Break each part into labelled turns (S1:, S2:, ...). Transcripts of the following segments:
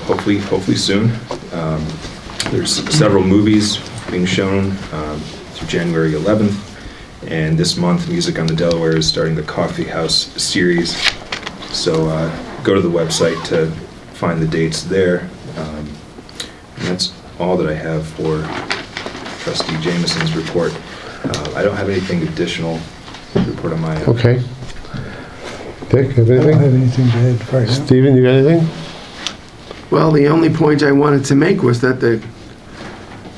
S1: hopefully, hopefully soon. Um, There's several movies being shown um, through January 11th, and this month, Music on the Delaware is starting the Coffee House series. So uh, go to the website to find the dates there. Um, And that's all that I have for trustee Jameson's report. Uh, I don't have anything additional to report on my end.
S2: Okay. Dick, have
S3: I don't
S2: anything?
S3: have anything to add right now.
S2: Steven, you got anything?
S4: Well, the only point I wanted to make was that the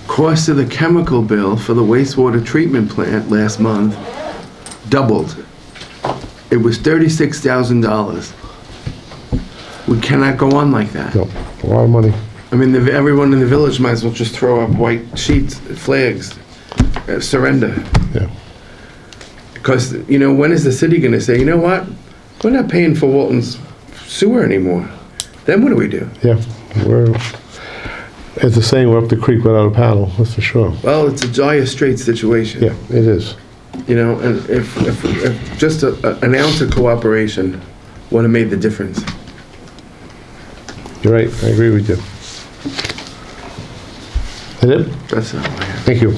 S4: cost of the chemical bill for the wastewater treatment plant last month doubled. It was thirty-six thousand dollars. We cannot go on like that.
S2: No, a lot of money.
S4: I mean, the- everyone in the village might as well just throw up white sheets, flags, uh, surrender.
S2: Yeah.
S4: Because, you know, when is the city gonna say, you know what? We're not paying for Walton's sewer anymore. Then what do we do?
S2: Yeah, we're, it's the saying, we're up the creek without a paddle, that's for sure.
S4: Well, it's a dire straight situation.
S2: Yeah, it is.
S4: You know, and if, if, if just a, a- an ounce of cooperation would have made the difference.
S2: You're right, I agree with you. That it?
S4: That's all I have.
S2: Thank you.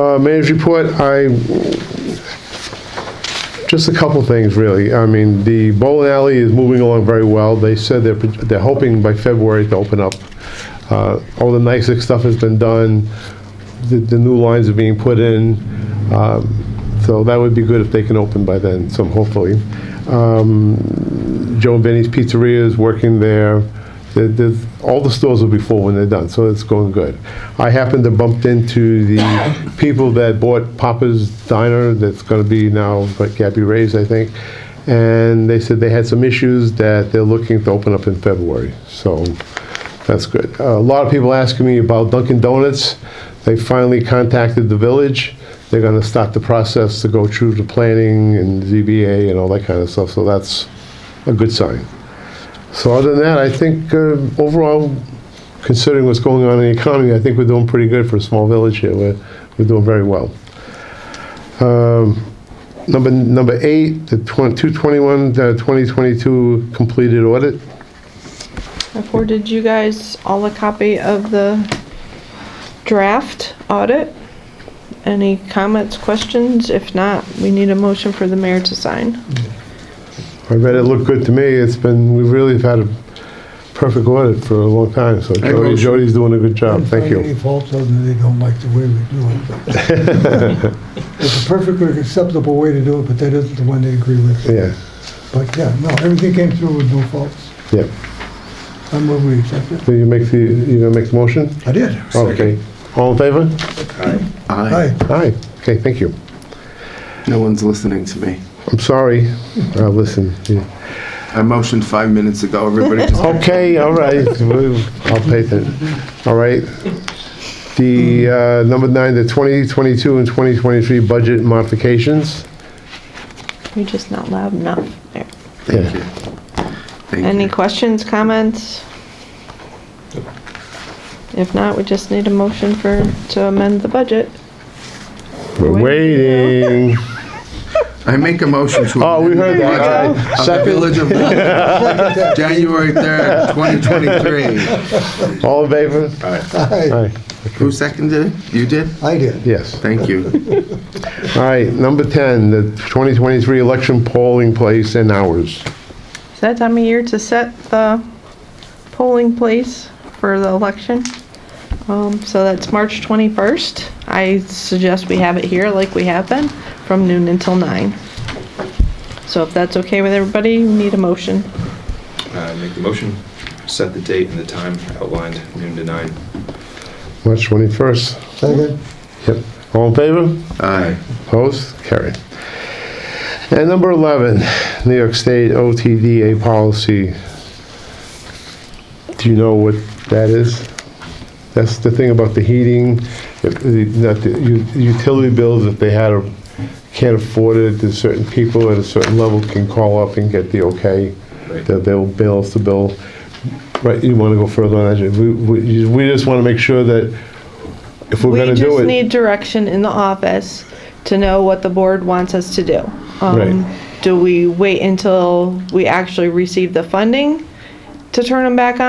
S2: Uh, Mayor's report, I, just a couple things, really. I mean, the bowling alley is moving along very well. They said they're, they're hoping by February to open up. Uh, All the NICEX stuff has been done, the, the new lines are being put in. Um, So that would be good if they can open by then, so hopefully. Joe and Benny's Pizzeria is working there. There- there's- all the stores will be full when they're done, so it's going good. I happened to bump into the people that bought Papa's Diner, that's going to be now like Gabby Ray's, I think, and they said they had some issues that they're looking to open up in February. So that's good. A lot of people asking me about Dunkin' Donuts. They finally contacted the village. They're going to start the process to go through the planning and ZBA and all that kind of stuff. So that's a good sign. So other than that, I think uh, overall, considering what's going on in the economy, I think we're doing pretty good for a small village here. We're, we're doing very well. Um, Number, number eight, the 221, 2022 uh, completed audit.
S5: I forwarded you guys all a copy of the draft audit. Any comments, questions? If not, we need a motion for the mayor to sign.
S2: I read it looked good to me. It's been, we really have had a perfect audit for a long time, so
S4: I
S2: Jody,
S4: motion.
S2: Jody's doing a good job. Thank
S3: Any
S2: you.
S3: faults other than they don't like the way we do it. but- It's a perfectly acceptable way to do it, but that isn't the one they agree with.
S2: Yeah,
S3: But yeah, no, everything came through with no faults.
S2: yeah.
S3: I move we accept it.
S2: So you make the, you gonna make the motion?
S3: I did.
S2: Okay. All in favor?
S4: I,
S3: Aye.
S2: Aye. Okay, thank you.
S4: no one's listening to me.
S2: I'm sorry. Uh, listen. yeah.
S4: I motioned five minutes ago, everybody just.
S2: Okay, all right. We'll- I'll pay that. All right. The, uh, number nine, the 2022 and 2023 budget modifications.
S5: You're just not loud enough there.
S2: Yeah.
S4: Thank you. Thank
S5: Any
S4: you.
S5: questions, comments? If not, we just need a motion for, to amend the budget.
S2: We're waiting.
S4: I make a motion to.
S2: Oh, we heard that. All
S4: amend the
S2: right.
S4: budget Of the
S2: Second.
S4: Village of Walton, January third, twenty twenty-three.
S2: All in favor?
S3: Aye.
S2: Aye.
S4: Who seconded it? You did?
S3: I did.
S2: Yes.
S4: Thank you.
S2: All right, number 10, the 2023 election polling place and hours.
S5: Is that time of year to set the polling place for the election? Um, so that's March 21st. I suggest we have it here like we have been, from noon until nine. So if that's okay with everybody, we need a motion.
S1: Uh, Make the motion, set the date and the time outlined, noon to nine.
S2: March 21st.
S3: Second.
S2: Yep. All in favor?
S4: Aye.
S2: Opposed? Carried. And number 11, New York State OTDA policy. Do you know what that is? That's the thing about the heating, if the- that the u- utility bills, if they had, a can't afford it, there's certain people at a certain level can call up and get the okay.
S1: Right.
S2: They'll- They'll bill us the bill. Right, you want to go further on that? We- We we just want to make sure that if we're
S5: We
S2: going to do it.
S5: just need direction in the office to know what the board wants us to do. Um,
S2: Right.
S5: Do we wait until we actually receive the funding to turn them back on.